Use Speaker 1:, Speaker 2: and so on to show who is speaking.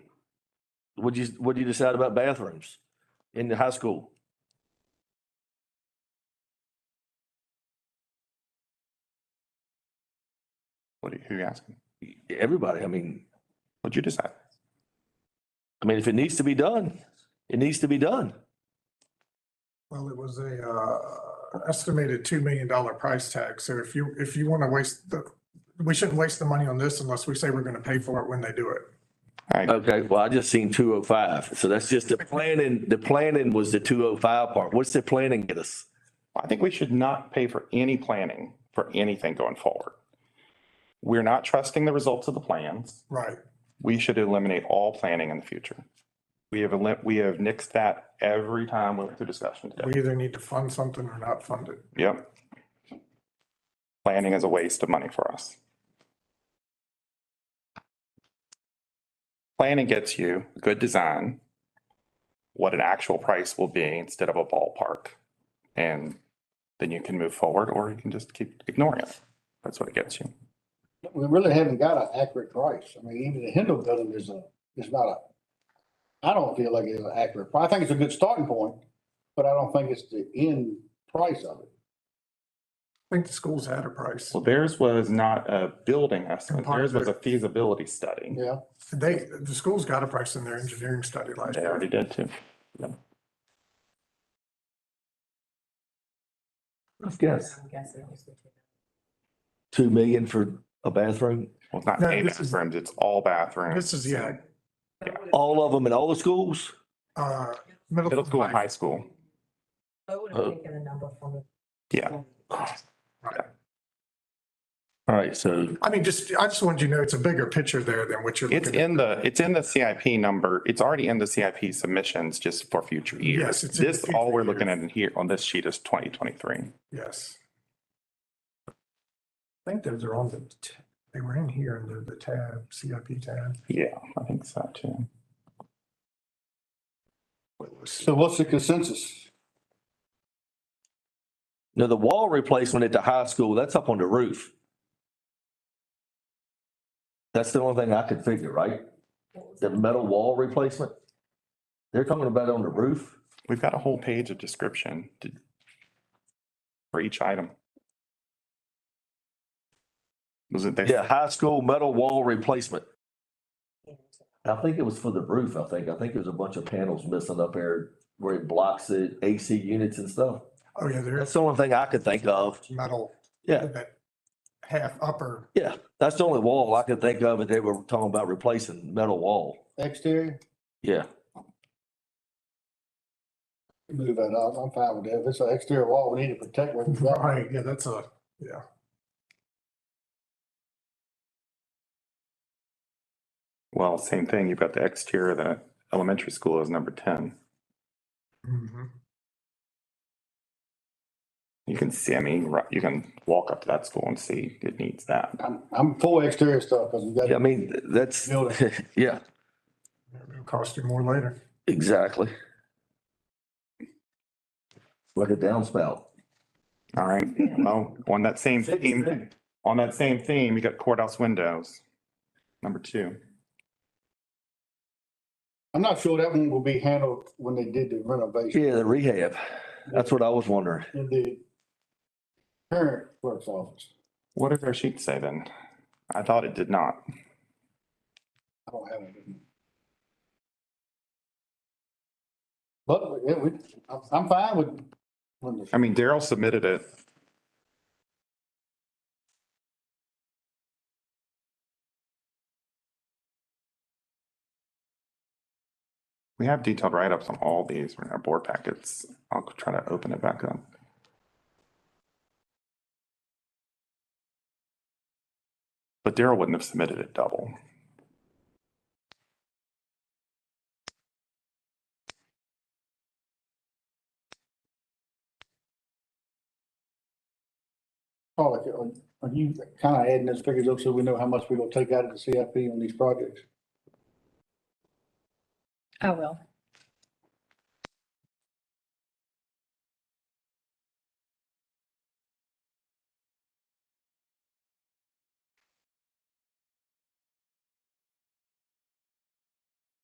Speaker 1: What'd you, what'd you decide about bathrooms in the high school?
Speaker 2: What are you, who you asking?
Speaker 1: Everybody, I mean,
Speaker 2: What'd you decide?
Speaker 1: I mean, if it needs to be done, it needs to be done.
Speaker 3: Well, it was a uh, estimated two million dollar price tag. So if you, if you want to waste the, we shouldn't waste the money on this unless we say we're going to pay for it when they do it.
Speaker 2: All right,
Speaker 1: Okay, well, I just seen two oh five, so that's just the planning, the planning was the two oh five part. What's the planning get us?
Speaker 2: I think we should not pay for any planning for anything going forward. We're not trusting the results of the plans.
Speaker 3: Right.
Speaker 2: We should eliminate all planning in the future. We have, elim- we have nixed that every time we went through discussion today.
Speaker 3: We either need to fund something or not fund it.
Speaker 2: Yep. Planning is a waste of money for us. Planning gets you good design, what an actual price will be instead of a ballpark. And then you can move forward or you can just keep ignoring it. That's what it gets you.
Speaker 4: we really haven't got an accurate price. I mean, even the Hendel building is a, is not a, I don't feel like it's an accurate price. I think it's a good starting point, but I don't think it's the end price of it.
Speaker 3: I think the schools had a price.
Speaker 2: Well, theirs was not a building estimate.
Speaker 3: Part
Speaker 2: Theirs
Speaker 3: of it.
Speaker 2: was a feasibility study.
Speaker 4: Yeah.
Speaker 3: They, the schools got a price in their engineering study last
Speaker 2: They
Speaker 3: year.
Speaker 2: already did too.
Speaker 1: Yes.
Speaker 5: I'm guessing. it's the two.
Speaker 1: Two million for a bathroom?
Speaker 2: Well, it's not
Speaker 3: No,
Speaker 2: a
Speaker 3: this is-
Speaker 2: bathrooms, it's all bathrooms.
Speaker 3: This is, yeah,
Speaker 1: All of them in all the schools?
Speaker 3: uh, middle.
Speaker 2: Middle school and high school.
Speaker 5: I would have taken the number from the.
Speaker 2: Yeah.
Speaker 1: All right, so
Speaker 3: I mean, just, I just wanted you to know it's a bigger picture there than what you're
Speaker 2: It's
Speaker 3: looking at.
Speaker 2: in the, it's in the CIP number. It's already in the CIP submissions just for future years.
Speaker 3: Yes, it's in the
Speaker 2: This, all
Speaker 3: future
Speaker 2: we're looking at
Speaker 3: years.
Speaker 2: in here on this sheet is twenty twenty-three.
Speaker 3: Yes. I think those are on the, t- they were in here under the tab, CIP tab.
Speaker 2: Yeah, I think so too.
Speaker 4: So what's the consensus?
Speaker 1: now the wall replacement at the high school, that's up on the roof. That's the only thing I could figure, right? The metal wall replacement? They're talking about on the roof?
Speaker 2: We've got a whole page of description to- for each item. Was it
Speaker 1: Yeah,
Speaker 2: there?
Speaker 1: high school metal wall replacement. I think it was for the roof, I think. I think there's a bunch of panels missing up there where it blocks the AC units and stuff.
Speaker 3: Oh, yeah,
Speaker 1: That's
Speaker 3: there's
Speaker 1: the only thing I could think of.
Speaker 3: metal.
Speaker 1: Yeah.
Speaker 3: that Half upper.
Speaker 1: Yeah, that's the only wall I could think of that they were talking about replacing metal wall.
Speaker 4: Exterior?
Speaker 1: Yeah.
Speaker 4: Move that up. I'm fine with that. If it's an exterior wall, we need to protect what we've got.
Speaker 3: Right, yeah, that's a, yeah.
Speaker 2: Well, same thing. You've got the exterior, the elementary school is number ten.
Speaker 3: Mhm.
Speaker 2: You can see, I mean, right- you can walk up to that school and see it needs that.
Speaker 4: I'm, I'm for exterior stuff because we
Speaker 1: Yeah, I
Speaker 4: got,
Speaker 1: mean, that's, yeah,
Speaker 3: It'll cost you more later.
Speaker 1: exactly. Like a downspout.
Speaker 2: All right, well, on that same theme, on that same theme, you got courthouse windows, number two.
Speaker 4: I'm not sure that one will be handled when they did the renovation
Speaker 1: Yeah, the rehab. That's what I was wondering.
Speaker 4: in the current clerk's office.
Speaker 2: What does our sheet say then? I thought it did not.
Speaker 4: I don't have it. with me. But yeah, we, I'm, I'm fine with, when the-
Speaker 2: I mean, Daryl submitted it. We have detailed write-ups on all these in our board packets. I'll try to open it back up. But Daryl wouldn't have submitted it double.
Speaker 4: Paul, are- are uh, you kind of adding those figures up so we know how much we're gonna take out of the CIP on these projects?
Speaker 6: I will.